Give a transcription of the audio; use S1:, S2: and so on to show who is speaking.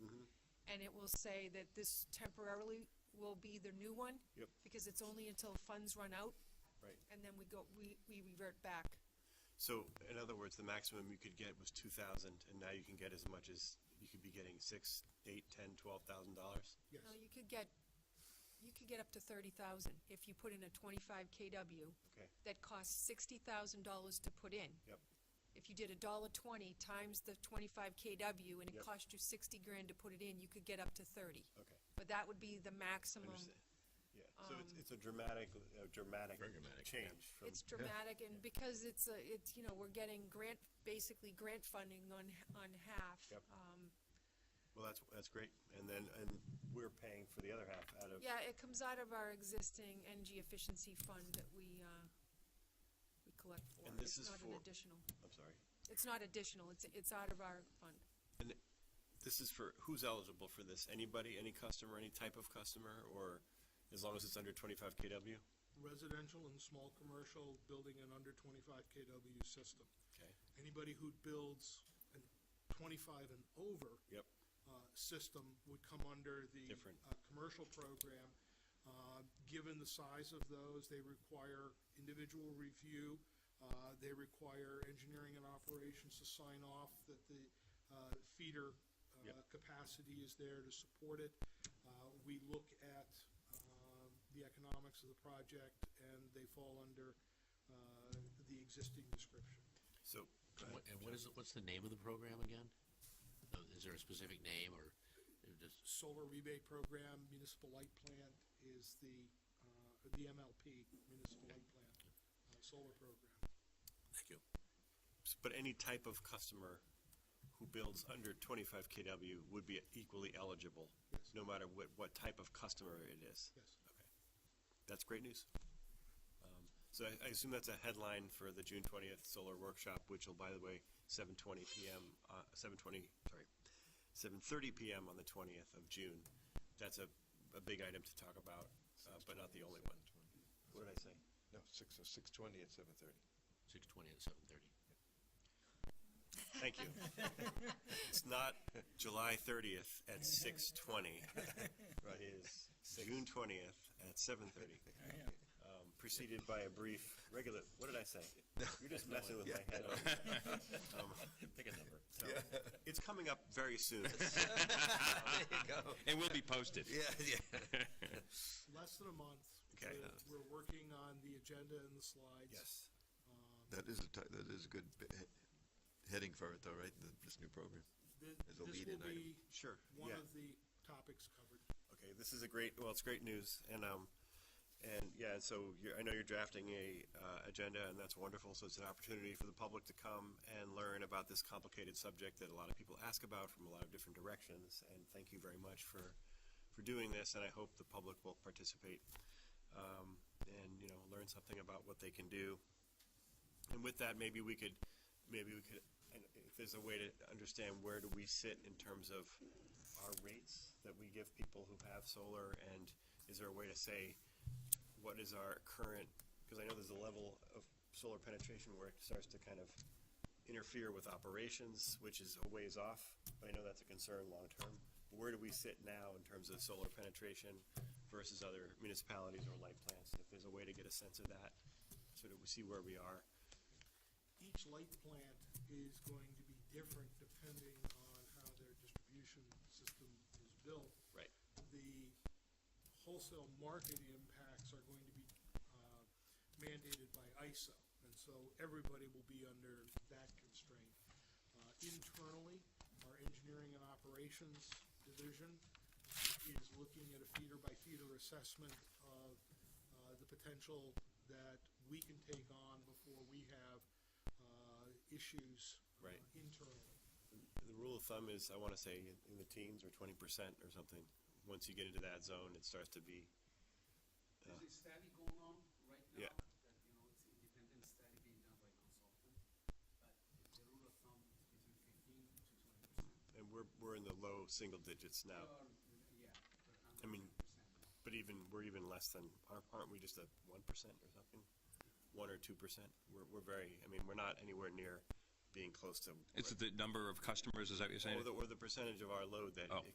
S1: and it will say that this temporarily will be the new one.
S2: Yep.
S1: Because it's only until funds run out.
S2: Right.
S1: And then we go, we, we revert back.
S2: So in other words, the maximum you could get was two thousand, and now you can get as much as, you could be getting six, eight, ten, twelve thousand dollars?
S3: Yes,
S1: No, you could get, you could get up to thirty thousand if you put in a twenty-five KW
S2: Okay,
S1: that costs sixty thousand dollars to put in.
S2: yep,
S1: If you did a dollar twenty times the twenty-five KW and it
S2: Yep.
S1: cost you sixty grand to put it in, you could get up to thirty.
S2: okay,
S1: But that would be the
S2: I
S1: maximum.
S2: understand. Yeah, so it's, it's a dramatic, a dramatic change from,
S1: It's dramatic and because it's a, it's, you know, we're getting grant, basically grant funding on, on half.
S2: Yep.
S1: Um,
S2: well, that's, that's great. And then, and we're paying for the other half out of,
S1: Yeah, it comes out of our existing energy efficiency fund that we, uh, we collect for.
S2: And this is
S1: It's not an
S2: for-
S1: additional,
S2: I'm sorry.
S1: it's not additional, it's, it's out of our fund.
S2: And this is for, who's eligible for this? Anybody, any customer, any type of customer, or as long as it's under twenty-five KW?
S3: residential and small commercial building an under twenty-five KW system.
S2: Okay,
S3: Anybody who builds a twenty-five and over
S2: yep,
S3: uh, system would come under the
S2: Different.
S3: uh, commercial program. Uh, Given the size of those, they require individual review. Uh, They require engineering and operations to sign off that the uh, feeder uh,
S2: Yep.
S3: capacity is there to support it. Uh, We look at um, the economics of the project, and they fall under uh, the existing description.
S2: so. go
S4: And
S2: ahead.
S4: what- And what is, it- what's the name of the program again? Uh, Is there a specific name or it just,
S3: solar rebate program, municipal light plant is the, uh, the MLP, municipal light plant, uh, solar program.
S2: Thank you. But any type of customer who builds under twenty-five KW would be equally eligible,
S3: Yes.
S2: no matter what, what type of customer it is.
S3: Yes.
S2: Okay. That's great news. Um, So I, I assume that's a headline for the June twentieth solar workshop, which will, by the way, seven twenty PM, uh, seven twenty, sorry, seven thirty PM on the twentieth of June. That's a, a big item to talk about, uh, but not the only one. What did I say?
S5: No, six, uh, six twenty at seven thirty.
S4: six twenty and seven thirty?
S2: Thank you. It's not July thirtieth at six twenty. It is June twentieth at seven thirty. Um, preceded by a brief regular, what did I say? You're just messing with my head. Pick a number. It's coming up very soon.
S6: And will be posted.
S5: Yeah, yeah.
S3: Less than a month.
S2: Okay.
S3: We're- We're working on the agenda and the slides. Um,
S2: Yes.
S5: That is a, ti- that is a good bi- he- heading for it though, right? Th- This new program.
S3: Th- This
S5: As a
S3: will be
S5: lead-in item.
S2: Sure,
S3: one
S2: yeah.
S3: of the topics covered.
S2: Okay, this is a great, well, it's great news, and, um, and, yeah, and so you're, I know you're drafting a, uh, agenda, and that's wonderful, so it's an opportunity for the public to come and learn about this complicated subject that a lot of people ask about from a lot of different directions, and thank you very much for, for doing this, and I hope the public will participate, um, and, you know, learn something about what they can do. And with that, maybe we could, maybe we could, and if there's a way to understand where do we sit in terms of our rates that we give people who have solar, and is there a way to say what is our current, because I know there's a level of solar penetration where it starts to kind of interfere with operations, which is a ways off, but I know that's a concern long-term. Where do we sit now in terms of solar penetration versus other municipalities or light plants? If there's a way to get a sense of that, so that we see where we are.
S3: Each light plant is going to be different depending on how their distribution system is built.
S2: Right.
S3: the wholesale market impacts are going to be uh, mandated by ISO, and so everybody will be under that constraint. Uh, Internally, our engineering and operations division is looking at a feeder-by-feeder assessment of uh, the potential that we can take on before we have uh, issues uh,
S2: Right.
S3: internally.
S2: The rule of thumb is, I want to say, in in the teens or twenty percent or something. Once you get into that zone, it starts to be,
S7: There's a study going on right now.
S2: Yeah.
S7: That, you know, it's independent study being done by consultant, but the rule of thumb is between fifteen to twenty percent.
S2: and we're, we're in the low single digits now.
S7: Or, yeah, per
S2: I mean-
S7: percent.
S2: But even, we're even less than, aren't- aren't we just at one percent or something? One or two percent? We're, we're very, I mean, we're not anywhere near being close to.
S6: It's the number of customers, is that what you're saying?
S2: Oh, Or the, or the percentage of our load that
S6: Oh.
S2: it